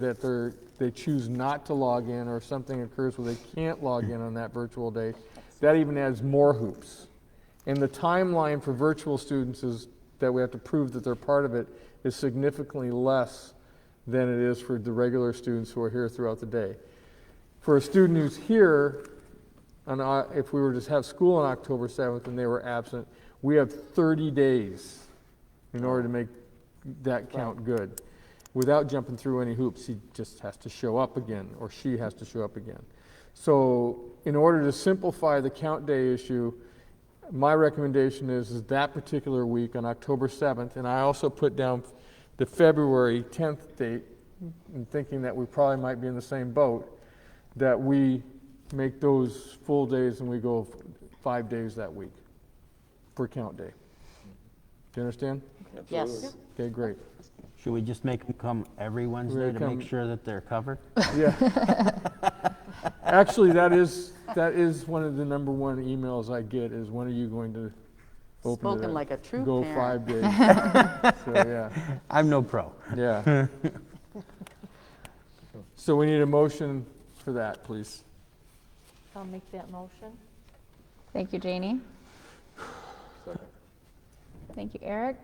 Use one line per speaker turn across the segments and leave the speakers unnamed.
that they're, they choose not to log in or something occurs where they can't log in on that virtual day, that even adds more hoops. And the timeline for virtual students is, that we have to prove that they're part of it, is significantly less than it is for the regular students who are here throughout the day. For a student who's here, on, O- if we were to have school on October 7th and they were absent, we have 30 days in order to make that count good. Without jumping through any hoops, he just has to show up again, or she has to show up again. So in order to simplify the count day issue, my recommendation is, is that particular week on October 7th, and I also put down the February 10th date, in thinking that we probably might be in the same boat, that we make those full days and we go f- five days that week for count day. Do you understand?
Yes.
Okay, great.
Should we just make them come every Wednesday
They
to
come-
make sure that they're covered?
Yeah. Actually, that is, that is one of the number one emails I get is when are you going to open it
Spoken
up?
like a true
Go five
parent.
days. So, yeah,
I'm no pro.
yeah. So we need a motion for that, please.
I'll make that motion.
Thank you, Janie. Thank you, Eric.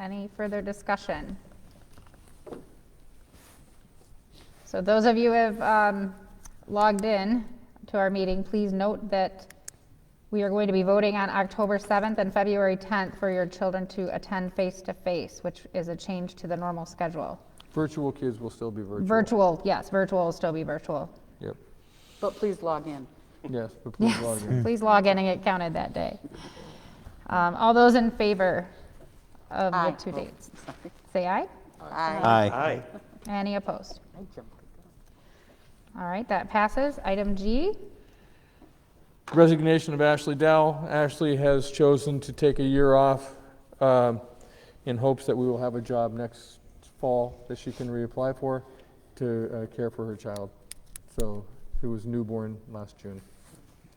Any further discussion? So those of you who have um, logged in to our meeting, please note that we are going to be voting on October 7th and February 10th for your children to attend face-to-face, which is a change to the normal schedule.
Virtual kids will still be virtual.
Virtual, yes, virtual will still be virtual.
Yep,
But please log in.
yes, but please log in.
Please log in and get counted that day. Um, All those in favor of the
Aye.
two
Oh,
dates,
sorry.
say aye.
Aye.
Aye.
Any opposed?
I jumped.
All right, that passes. Item G,
Resignation of Ashley Dow. Ashley has chosen to take a year off um, in hopes that we will have a job next fall that she can reapply for to uh, care for her child. So, who was newborn last June.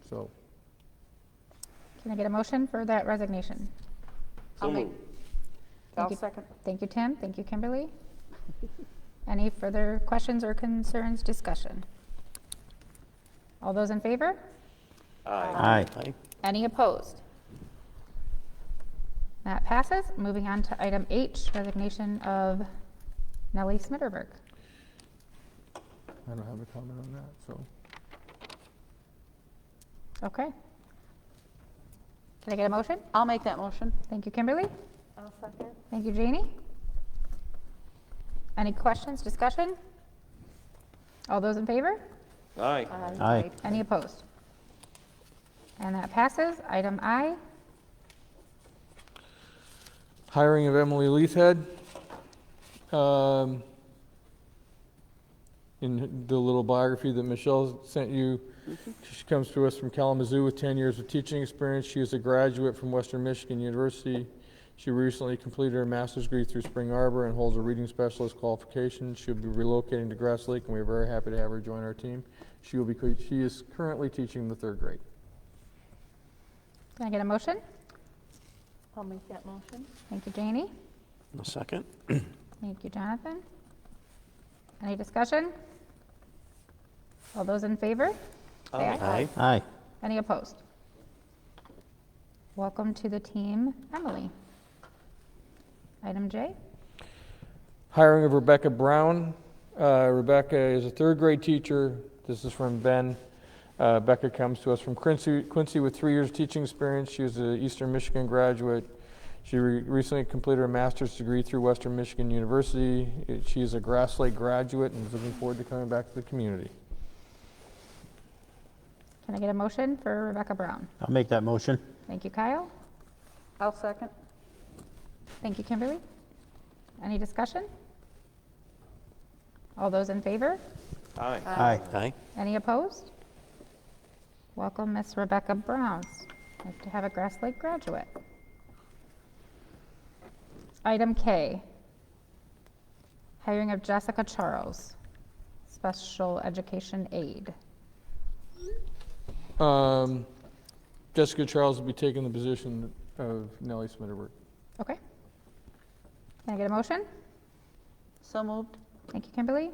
So,
can I get a motion for that resignation?
I'll make,
Thank
I'll
you.
second.
Thank you, Tim. Thank you, Kimberly. Any further questions or concerns, discussion? All those in favor?
Aye.
Any opposed? That passes. Moving on to item H, resignation of Nellie Smitterberg.
I don't have a comment on that. So,
Okay. Can I get a motion?
I'll make that motion.
Thank you, Kimberly.
I'll second.
Thank you, Janie. Any questions, discussion? All those in favor?
Aye.
Aye.
Any opposed? And that passes. Item I,
hiring of Emily Leithhead. Um, in the little biography that Michelle sent you, she comes to us from Kalamazoo with 10 years of teaching experience. She is a graduate from Western Michigan University. She recently completed her master's degree through Spring Arbor and holds a reading specialist qualification. She'll be relocating to Grass Lake, and we are very happy to have her join our team. She will be, she is currently teaching the third grade.
can I get a motion?
I'll make that motion.
Thank you, Janie.
A second?
Thank you, Jonathan. Any discussion? All those in favor? Say aye.
Aye.
Aye.
Any opposed? Welcome to the team, Emily. Item J,
Hiring of Rebecca Brown. Uh, Rebecca is a third grade teacher. This is from Ben. Uh, Becca comes to us from Quincy, Quincy with three years of teaching experience. She is an Eastern Michigan graduate. She re- recently completed her master's degree through Western Michigan University. It- She is a Grass Lake graduate and is looking forward to coming back to the community.
can I get a motion for Rebecca Brown?
I'll make that motion.
Thank you, Kyle.
I'll second.
Thank you, Kimberly. Any discussion? All those in favor?
Aye.
Aye.
Aye.
Any opposed? Welcome, Miss Rebecca Browns. Nice to have a Grass Lake graduate. Item K, hiring of Jessica Charles, special education aide.
Um, Jessica Charles will be taking the position of Nellie Smitterberg.
Okay. Can I get a motion?
So moved.
Thank you, Kimberly.